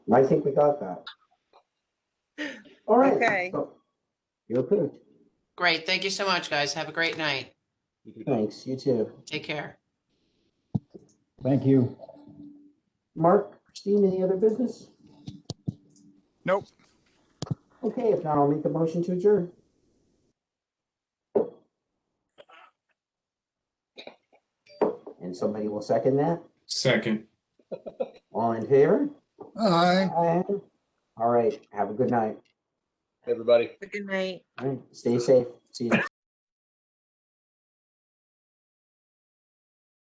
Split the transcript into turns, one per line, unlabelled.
I think we got that. All right.
Okay.
so You're approved.
Great. Thank you so much, guys. Have a great night.
Thanks, you too.
Take care.
Thank you.
Mark, Christine, any other business?
Nope.
Okay, if not, I'll make a motion to adjourn. And somebody will second that?
Second.
All in favor?
Aye.
Aye. All right, have a good night.
everybody.
Good night.
All right, stay safe. See you.